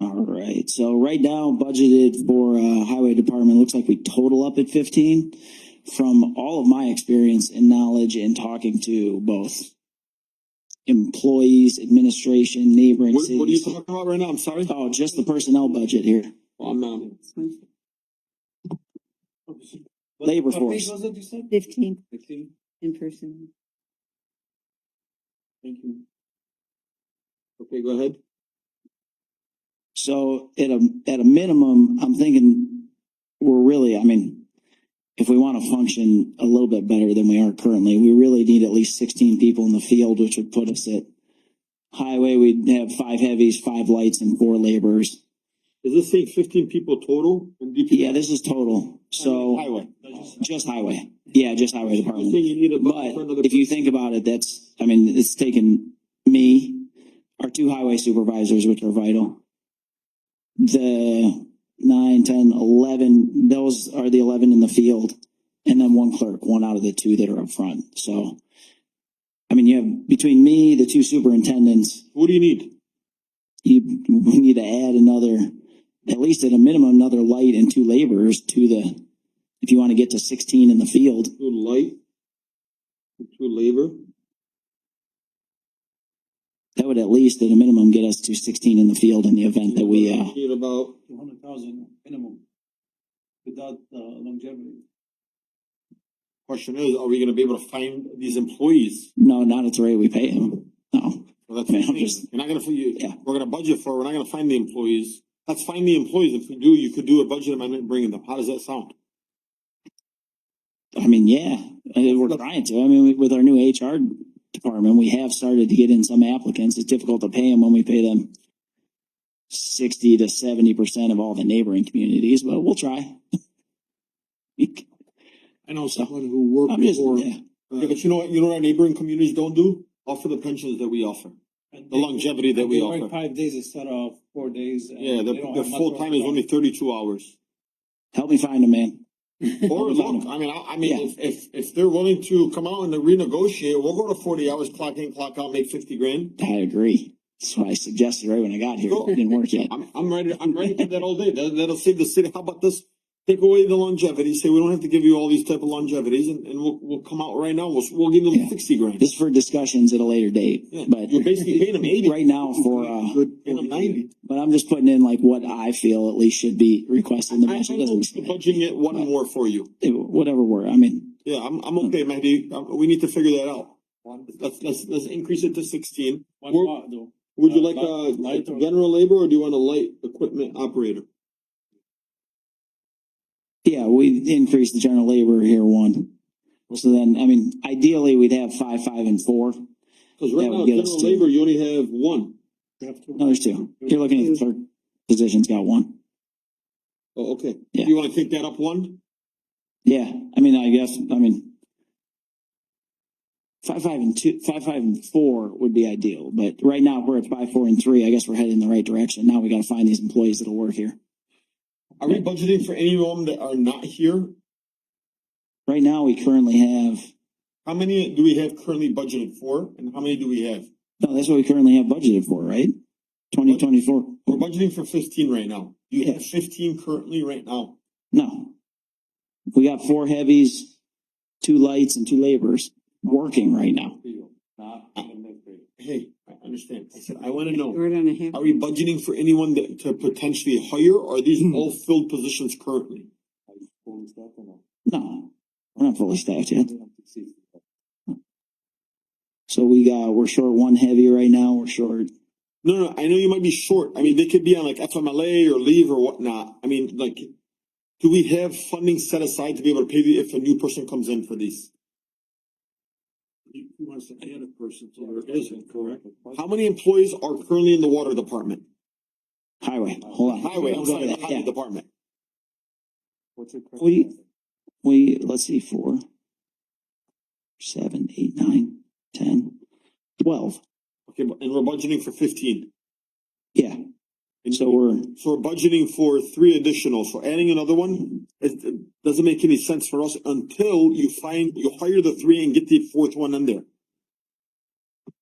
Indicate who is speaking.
Speaker 1: All right, so right now budgeted for uh highway department, looks like we total up at fifteen. From all of my experience and knowledge and talking to both employees, administration, neighboring
Speaker 2: What,
Speaker 1: cities.
Speaker 2: what are you talking about right now? I'm sorry.
Speaker 1: Oh, just the personnel budget here,
Speaker 2: I'm, um,
Speaker 1: labor force.
Speaker 3: Fifteen in person.
Speaker 2: Thank you. Okay, go ahead.
Speaker 1: So at a, at a minimum, I'm thinking we're really, I mean, if we want to function a little bit better than we are currently, we really need at least sixteen people in the field, which would put us at highway, we'd have five heavies, five lights and four laborers.
Speaker 2: Is this saying fifteen people total in DPW?
Speaker 1: Yeah, this is total. So
Speaker 2: Highway.
Speaker 1: just highway. Yeah, just highway
Speaker 2: You're
Speaker 1: department.
Speaker 2: saying you need a budget for another.
Speaker 1: But if you think about it, that's, I mean, it's taken me, our two highway supervisors, which are vital. The nine, ten, eleven, those are the eleven in the field. And then one clerk, one out of the two that are up front. So, I mean, you have, between me, the two superintendents,
Speaker 2: What do you need?
Speaker 1: you, we need to add another, at least at a minimum, another light and two laborers to the, if you want to get to sixteen in the field.
Speaker 2: Two light? Two labor?
Speaker 1: That would at least, at a minimum, get us to sixteen in the field in the event that we, uh,
Speaker 2: Need about,
Speaker 4: two hundred thousand minimum without uh, longevity.
Speaker 2: question is, are we gonna be able to find these employees?
Speaker 1: no, not at the rate we pay them. No,
Speaker 2: Well, that's what
Speaker 1: Yeah,
Speaker 2: I'm
Speaker 1: I'm just-
Speaker 2: You're not gonna, fi- you,
Speaker 1: Yeah.
Speaker 2: we're gonna budget for, we're not gonna find the employees. Let's find the employees. If we do, you could do a budget amendment and bring them. How does that sound?
Speaker 1: I mean, yeah, I- we're trying to. I mean, we- with our new HR department, we have started to get in some applicants. It's difficult to pay them when we pay them sixty to seventy percent of all the neighboring communities, but we'll try.
Speaker 4: I know
Speaker 1: someone
Speaker 4: who worked
Speaker 1: I'm just, yeah,
Speaker 2: Yeah, but you know what, you know what our neighboring communities don't do? Offer the pensions that we offer, the longevity that we offer.
Speaker 4: Five days instead of four days. and
Speaker 2: Yeah, the,
Speaker 4: they don't
Speaker 2: the
Speaker 4: have much
Speaker 2: full time is
Speaker 4: work.
Speaker 2: only thirty-two hours.
Speaker 1: help me find them, man.
Speaker 2: Or look, I mean, I, I mean, if, if, if they're willing to come out and renegotiate, we'll go to forty hours, clock in, clock out, make fifty grand.
Speaker 1: I agree. That's what I suggested right when I got here. It didn't work yet.
Speaker 2: I'm, I'm ready, I'm ready to do that all day. That, that'll save the city. How about this? Take away the longevity, say we don't have to give you all these type of longevities and, and we'll, we'll come out right now, we'll, we'll give them
Speaker 1: Yeah.
Speaker 2: sixty grand.
Speaker 1: This is for discussions at a later date,
Speaker 2: Yeah,
Speaker 1: but
Speaker 2: You're basically paying them eighty.
Speaker 1: right now for, uh,
Speaker 2: Paying them ninety.
Speaker 1: But I'm just putting in like what I feel at least should be requested in the
Speaker 2: I, I'm
Speaker 1: budget. It doesn't-
Speaker 2: budgeting it one more for you.
Speaker 1: it- Whatever we're, I mean,
Speaker 2: Yeah, I'm, I'm okay,
Speaker 1: Hmm.
Speaker 2: Mahdi. Uh, We need to figure that out. Let's, let's, let's increase it to sixteen.
Speaker 4: One
Speaker 2: We're-
Speaker 4: lot though.
Speaker 2: Would you
Speaker 4: Uh,
Speaker 2: like a,
Speaker 4: light-
Speaker 2: a
Speaker 4: light or-
Speaker 2: general labor or do you want a light equipment operator?
Speaker 1: yeah, we increase the general labor here one. So then, I mean, ideally, we'd have five, five and four.
Speaker 2: Cause right
Speaker 1: That would
Speaker 2: now,
Speaker 1: get us
Speaker 2: general
Speaker 1: to-
Speaker 2: labor, you only have one.
Speaker 4: You have to-
Speaker 1: No, there's two. You're looking at the third position's got one.
Speaker 2: Oh, okay.
Speaker 1: Yeah.
Speaker 2: You wanna take that up one?
Speaker 1: Yeah, I mean, I guess, I mean. Five, five and two, five, five and four would be ideal, but right now we're at five, four and three. I guess we're headed in the right direction. Now we gotta find these employees that'll work here.
Speaker 2: Are we budgeting for any of them that are not here?
Speaker 1: Right now, we currently have
Speaker 2: How many do we have currently budgeted for and how many do we have?
Speaker 1: No, that's what we currently have budgeted for, right? Twenty twenty-four,
Speaker 2: We're budgeting for fifteen right now. You have
Speaker 1: Yes.
Speaker 2: fifteen currently right now.
Speaker 1: no. We got four heavies, two lights and two laborers working right now.
Speaker 2: Hey, I understand. I said, I wanna know.
Speaker 3: Or on a half.
Speaker 2: Are we budgeting for anyone that to potentially hire, or are these all filled positions currently?
Speaker 1: No, we're not fully staffed yet. So we got, we're short one heavy right now, we're short.
Speaker 2: No, no, I know you might be short, I mean, they could be on like FMLA or leave or whatnot, I mean, like. Do we have funding set aside to be able to pay the- if a new person comes in for these?
Speaker 4: He wants to add a person, so
Speaker 2: there
Speaker 4: there
Speaker 2: isn't,
Speaker 4: isn't, correct?
Speaker 2: How many employees are currently in the water department?
Speaker 1: Highway, hold on.
Speaker 2: Highway, I'm
Speaker 1: We'll go
Speaker 2: sorry,
Speaker 1: to
Speaker 2: the
Speaker 1: that,
Speaker 2: highway
Speaker 1: yeah.
Speaker 2: department.
Speaker 1: We, we, let's see, four, seven, eight, nine, ten, twelve,
Speaker 2: Okay, but- and we're budgeting for fifteen.
Speaker 1: yeah.
Speaker 2: And
Speaker 1: So we're,
Speaker 2: So we're budgeting for three additional, so adding another one, it, it doesn't make any sense for us until you find, you hire the three and get the fourth one in there.